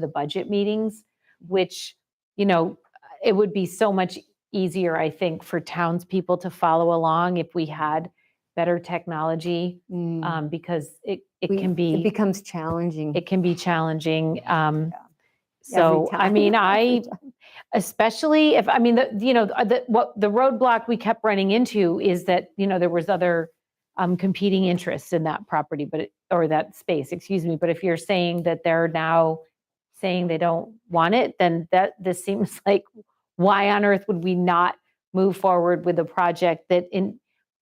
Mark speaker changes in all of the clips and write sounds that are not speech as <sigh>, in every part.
Speaker 1: the budget meetings, which, you know, it would be so much easier, I think, for townspeople to follow along if we had better technology,
Speaker 2: Mm.
Speaker 1: um, because it, it
Speaker 2: We-
Speaker 1: can
Speaker 2: It
Speaker 1: be,
Speaker 2: becomes challenging.
Speaker 1: it can be challenging. um,
Speaker 2: every
Speaker 1: So, I
Speaker 2: time,
Speaker 1: mean,
Speaker 2: <laughs> every
Speaker 1: I,
Speaker 2: time.
Speaker 1: especially if, I mean, the, you know, uh, the, what, the roadblock we kept running into is that, you know, there was other um, competing interests in that property, but, it- or that space, excuse me. But if you're saying that they're now saying they don't want it, then that, this <laughs> seems like, why on earth would we not move forward with a project that in,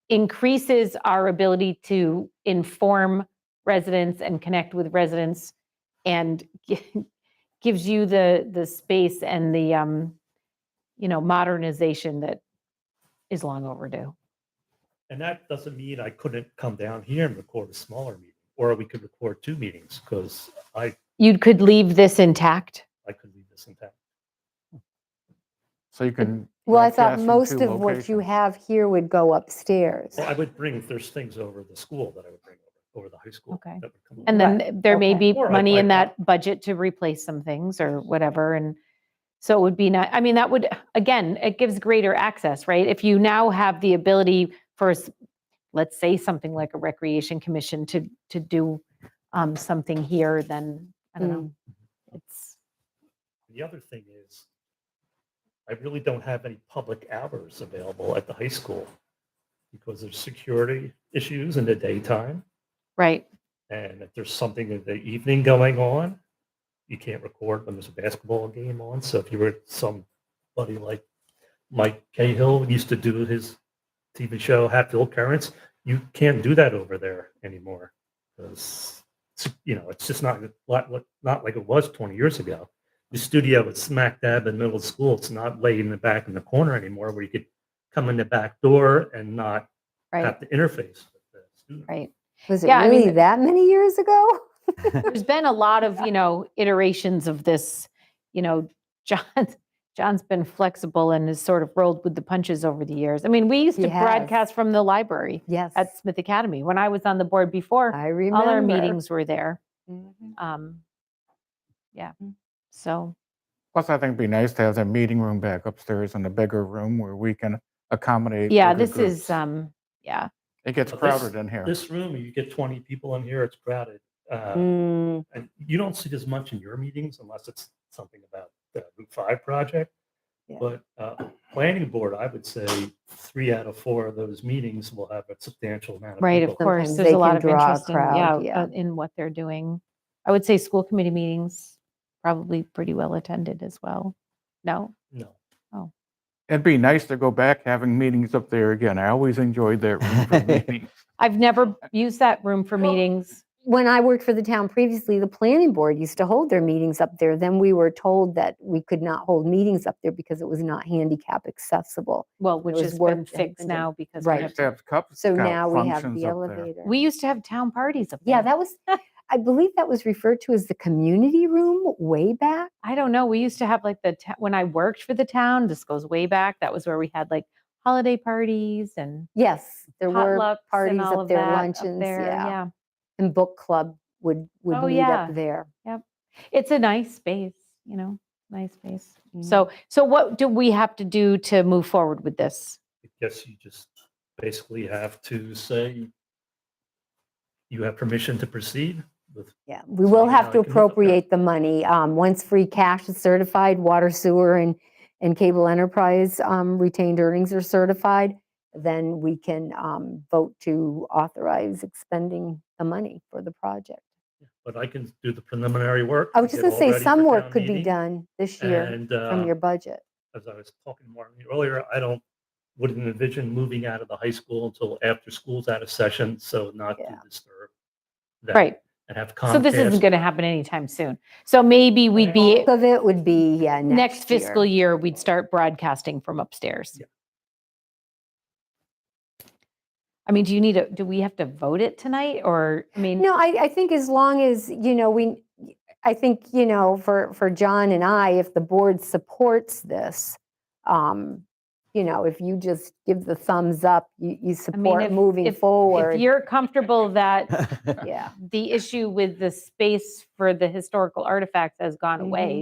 Speaker 1: increases our ability to inform residents and connect with residents and <laughs> gi- gives you the, the space and the, um, you know, modernization that is long overdue.
Speaker 3: And that doesn't mean I couldn't come down here and record a smaller meeting, or we could record two meetings because I,
Speaker 1: You could leave this intact.
Speaker 3: I could leave this intact.
Speaker 4: So you can.
Speaker 2: Well, I
Speaker 4: broadcast
Speaker 2: thought
Speaker 4: from
Speaker 2: most
Speaker 4: two
Speaker 2: of what you
Speaker 4: locations.
Speaker 2: have here would go upstairs.
Speaker 3: Well, I would bring, there's things over the school that I would bring over, over the high school.
Speaker 1: Okay.
Speaker 3: that would come
Speaker 1: And
Speaker 3: over.
Speaker 1: then there may
Speaker 2: okay.
Speaker 1: be
Speaker 3: Or I
Speaker 1: money
Speaker 3: might
Speaker 1: in
Speaker 3: not.
Speaker 1: that budget to replace some things or whatever. And so it would be not, I mean, that would, again, it gives greater access, right? If you now have the ability for, s- let's say, something like a recreation commission to, to do um, something here, then, I don't know. It's,
Speaker 3: The other thing is, I really don't have any public hours available at the high school because there's security issues in the daytime.
Speaker 1: right,
Speaker 3: And if there's something in the evening going on, you can't record when there's a basketball game on. So if you were somebody like Mike Cahill used to do his TV show Hatfield Currents, you can't do that over there anymore because you know it's just not like not like it was 20 years ago. The studio is smack dab in the middle of school. It's not laid in the back in the corner anymore, where you could come in the back door and not
Speaker 1: right,
Speaker 3: have to interface with the student.
Speaker 1: right.
Speaker 2: Was it
Speaker 1: Yeah, I mean-
Speaker 2: really that many years ago?
Speaker 1: There's been a lot of, you know, iterations of this, you know, <laughs> John, John's been flexible and has sort of rolled with the punches over the years. I mean, we used
Speaker 2: He
Speaker 1: to
Speaker 2: has.
Speaker 1: broadcast from the library.
Speaker 2: Yes,
Speaker 1: at Smith Academy. When I was on the board before,
Speaker 2: I remember.
Speaker 1: all our meetings were there.
Speaker 2: Mhm.
Speaker 1: Um, Yeah,
Speaker 2: Mm.
Speaker 1: so,
Speaker 4: Plus, I think it'd be nice to have that meeting room back upstairs in the bigger room where we can accommodate.
Speaker 1: yeah,
Speaker 4: bigger
Speaker 1: this is,
Speaker 4: groups.
Speaker 2: uh,
Speaker 1: um, yeah,
Speaker 4: It gets
Speaker 3: But this-
Speaker 4: crowded in here.
Speaker 3: This room, you get 20 people in here, it's crowded. Uh,
Speaker 2: Mm,
Speaker 3: And you don't see this much in your meetings unless it's something about the Route 5 project.
Speaker 2: Yeah.
Speaker 3: But uh, planning board, I would say three out of four of those meetings will have a substantial amount of
Speaker 1: right, of
Speaker 3: people.
Speaker 1: course,
Speaker 2: Sometimes
Speaker 1: there's
Speaker 2: they
Speaker 1: a lot
Speaker 2: can
Speaker 1: of
Speaker 2: draw a
Speaker 1: interest in,
Speaker 2: crowd,
Speaker 1: yeah,
Speaker 2: yeah.
Speaker 1: uh, in what they're doing. I would say school committee meetings, probably pretty well attended as well. No?
Speaker 3: No.
Speaker 4: It'd be nice to go back having meetings up there again. I always enjoyed that room
Speaker 3: <laughs>
Speaker 4: for meetings.
Speaker 1: I've never used that room for
Speaker 2: Uh, Well,
Speaker 1: meetings.
Speaker 2: When I worked for the town previously, the planning board used to hold their meetings up there. Then we were told that we could not hold meetings up there because it was not handicap accessible.
Speaker 1: Well, which
Speaker 2: was
Speaker 1: has
Speaker 2: work
Speaker 1: been
Speaker 2: that had
Speaker 1: fixed
Speaker 2: been done.
Speaker 1: now because. we
Speaker 2: Right.
Speaker 1: have-
Speaker 4: Used to have cup
Speaker 2: So
Speaker 4: scout
Speaker 2: now we have
Speaker 4: functions
Speaker 2: the
Speaker 4: up there.
Speaker 2: elevator.
Speaker 1: We used to have town parties up there.
Speaker 2: Yeah, that was, I believe that was referred to as the community room way back.
Speaker 1: I don't know. We used to have like the ta- when I worked for the town. This goes way back. That was where we had like holiday parties and
Speaker 2: Yes, there
Speaker 1: potlucks
Speaker 2: were
Speaker 1: and
Speaker 2: parties
Speaker 1: all
Speaker 2: up
Speaker 1: of
Speaker 2: there,
Speaker 1: that up
Speaker 2: luncheons,
Speaker 1: there.
Speaker 2: yeah. And book club would, would
Speaker 1: Oh,
Speaker 2: meet
Speaker 1: yeah.
Speaker 2: up there.
Speaker 1: it's a nice space, you know, nice space.
Speaker 2: Mm.
Speaker 1: So, so what do we have to do to move forward with this?
Speaker 3: I guess you just basically have to say you have permission to proceed with,
Speaker 2: Yeah, we
Speaker 3: So
Speaker 2: will
Speaker 3: you
Speaker 2: have
Speaker 3: know,
Speaker 2: to
Speaker 3: you can look up there.
Speaker 2: appropriate the money. Um, once free cash is certified, water, sewer, and, and cable enterprise, um, retained earnings are certified, then we can, um, vote to authorize expending the money for the project.
Speaker 3: but I can do the preliminary work.
Speaker 2: I was just
Speaker 3: get
Speaker 2: gonna
Speaker 3: all
Speaker 2: say,
Speaker 3: ready for
Speaker 2: some work
Speaker 3: town
Speaker 2: could be
Speaker 3: meeting,
Speaker 2: done this year
Speaker 3: And
Speaker 2: from
Speaker 3: uh,
Speaker 2: your budget.
Speaker 3: as I was talking to Martin earlier, I don't, wouldn't envision moving out of the high school until after school's out of session, so not to
Speaker 2: Yeah.
Speaker 3: disturb. them
Speaker 1: Right.
Speaker 3: And have
Speaker 1: So this isn't
Speaker 3: Comcast,
Speaker 1: going to happen anytime soon. So maybe we'd be
Speaker 2: Bulk of it would be, yeah,
Speaker 1: next
Speaker 2: next year.
Speaker 1: fiscal year, we'd start broadcasting from upstairs.
Speaker 3: Yeah.
Speaker 1: I mean, do you need a, do we have to vote it tonight or, I mean?
Speaker 2: No, I, I think as long as, you know, we, I think, you know, for, for John and I, if the board supports this, um, you know, if you just give the thumbs up, you, you
Speaker 1: if-
Speaker 2: support moving
Speaker 1: if- If
Speaker 2: forward.
Speaker 1: you're comfortable that
Speaker 2: Yeah.
Speaker 3: <laughs>
Speaker 1: the issue with the space for the historical artifacts has gone
Speaker 2: Mhm.
Speaker 1: away,